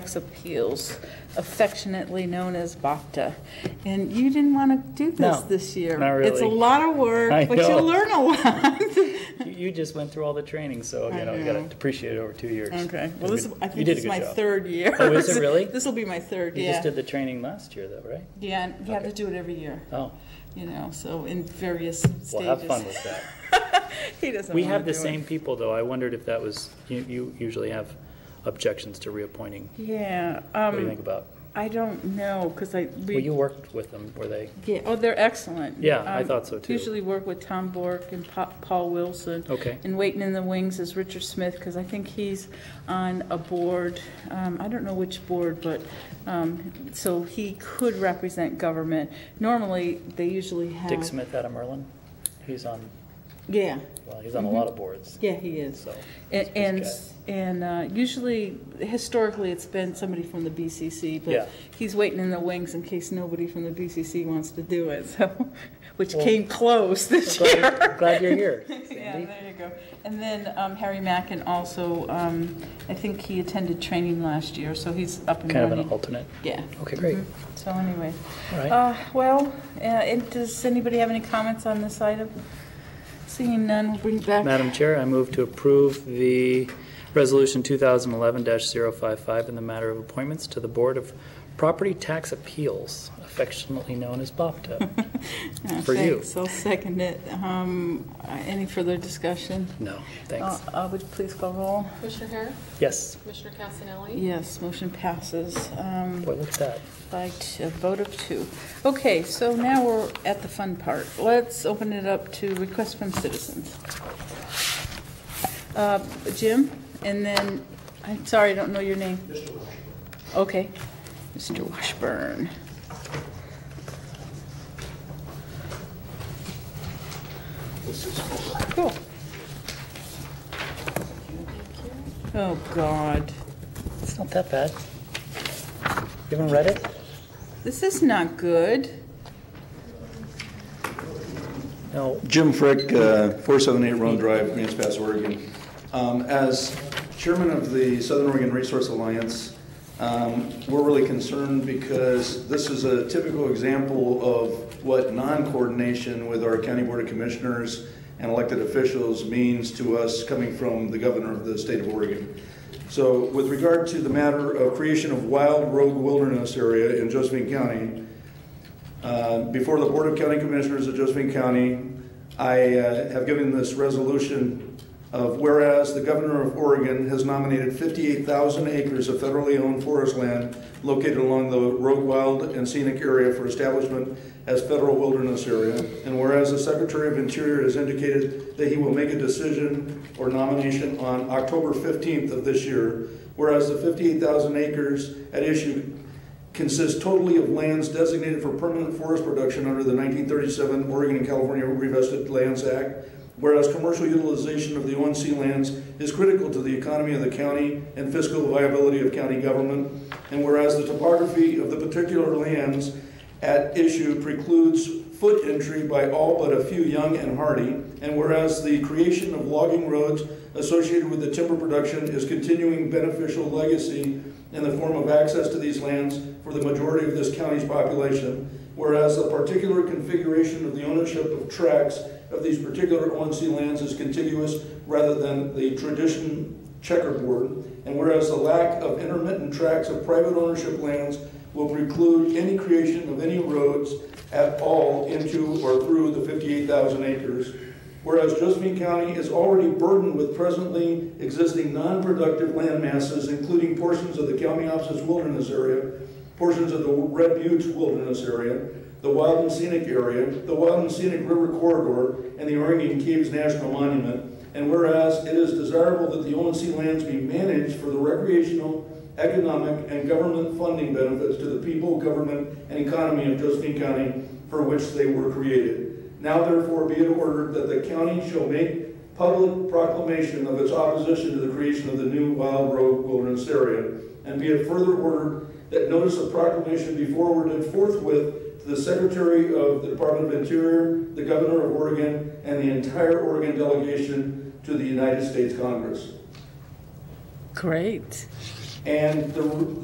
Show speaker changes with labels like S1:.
S1: Appeals, affectionately known as BACTA. And you didn't want to do this
S2: No,
S1: this year.
S2: not
S1: It's a
S2: really.
S1: lot of
S2: I
S1: work, but you'll
S2: know.
S1: learn a lot.
S2: You, you just went through all the training, so
S1: I
S2: you know, you got
S1: know.
S2: to appreciate it over two years.
S1: Okay, well,
S2: You
S1: this,
S2: did-
S1: I
S2: you
S1: think this
S2: did a
S1: is
S2: good
S1: my
S2: job.
S1: third year.
S2: Oh, is it really?
S1: This will be my third,
S2: You just
S1: yeah.
S2: did the training last year, though, right?
S1: Yeah, and you have to
S2: Okay.
S1: do it every year,
S2: Oh,
S1: you know, so in various stages.
S2: well, have fun with that.
S1: He doesn't
S2: We
S1: wanna
S2: have the
S1: do it.
S2: same people, though. I wondered if that was, you, you usually have objections to reappointing.
S1: Yeah,
S2: What do you
S1: um,
S2: think about?
S1: I don't know, because I,
S2: Well, you
S1: we,
S2: worked with them, were they?
S1: yeah, oh, they're excellent.
S2: Yeah, I
S1: Um,
S2: thought so, too.
S1: Usually work with Tom Bork and Pa- Paul Wilson.
S2: Okay.
S1: And waiting in the wings is Richard Smith, because I think he's on a board, um, I don't know which board, but, um, so he could represent government. Normally, they usually have.
S2: Dick Smith out of Merlin? He's on,
S1: Yeah,
S2: well, he's on a lot of boards,
S1: Mm-hmm. yeah, he is.
S2: so.
S1: And,
S2: he's a
S1: and,
S2: busy guy.
S1: and uh, usually, historically, it's been somebody from the BCC,
S2: Yeah.
S1: but he's waiting in the wings in case nobody from the BCC wants to do it, so, which
S2: Well-
S1: came close this
S2: Glad
S1: year.
S2: you're- Glad you're here,
S1: Yeah,
S2: Sandy.
S1: there you go. And then um, Harry Mackin also, um, I think he attended training last year, so he's up and
S2: Kind of an
S1: running.
S2: alternate.
S1: Yeah, Mm-hmm.
S2: Okay, great.
S1: so anyway.
S2: All right.
S1: Uh, Well, uh, and does anybody have any comments on this item? Seeing none, we'll bring it back.
S2: Madam Chair, I move to approve the Resolution 2011-055 in the matter of appointments to the Board of Property Tax Appeals, affectionately known as BOPTA.
S1: Uh,
S2: for you.
S1: Thanks, I'll second it. Um, uh, Any further discussion?
S2: No, thanks.
S1: Uh, uh, Would you please call roll?
S3: Commissioner Hare,
S2: Yes,
S3: Commissioner Casanelli,
S1: Yes, motion passes um,
S2: boy, look at that.
S1: by t- a vote of two. Okay, so now we're at the fun part. Let's open it up to requests from citizens. Uh, Jim, and then, I'm sorry, I don't know your name. Mr. Washburn. Okay, Mr. Washburn. Cool. Oh, God.
S2: It's not that bad. You haven't read it?
S1: This is not good.
S2: No,
S4: Jim Frick, uh, 478 Roan Drive, Grants Pass, Oregon. Um, As chairman of the Southern Oregon Resource Alliance, um, we're really concerned because this is a typical example of what non-coordination with our county board of commissioners and elected officials means to us coming from the governor of the state of Oregon. So with regard to the matter of creation of wild rogue wilderness area in Josephine County, uh, Before the Board of County Commissioners of Josephine County, I uh, have given this resolution of whereas the Governor of Oregon has nominated 58,000 acres of federally owned forest land located along the Rogue Wild and Scenic Area for establishment as federal wilderness area, and whereas the Secretary of Interior has indicated that he will make a decision or nomination on October 15th of this year, whereas the 58,000 acres at issue consists totally of lands designated for permanent forest production under the 1937 Oregon and California Revested Lands Act, whereas commercial utilization of the ONC lands is critical to the economy of the county and fiscal viability of county government, and whereas the topography of the particular lands at issue precludes foot entry by all but a few young and hardy, and whereas the creation of logging roads associated with the timber production is continuing beneficial legacy in the form of access to these lands for the majority of this county's population, whereas the particular configuration of the ownership of tracts of these particular ONC lands is contiguous rather than the tradition checkerboard, and whereas the lack of intermittent tracts of private ownership lands will preclude any creation of any roads at all into or through the 58,000 acres. Whereas Josephine County is already burdened with presently existing non-productive land masses, including portions of the Kalmiopsis Wilderness Area, portions of the Red Buttes Wilderness Area, the Wild and Scenic Area, the Wild and Scenic River Corridor, and the Oregon Caves National Monument. And whereas it is desirable that the ONC lands be managed for the recreational, economic, and government funding benefits to the people, government, and economy of Josephine County for which they were created. Now therefore be it ordered that the county shall make public proclamation of its opposition to the creation of the new Wild Rogue Wilderness Area. And be it further ordered that notice of proclamation be forwarded forthwith to the Secretary of the Department of Interior, the Governor of Oregon, and the entire Oregon delegation to the United States Congress.
S1: Great.
S4: And the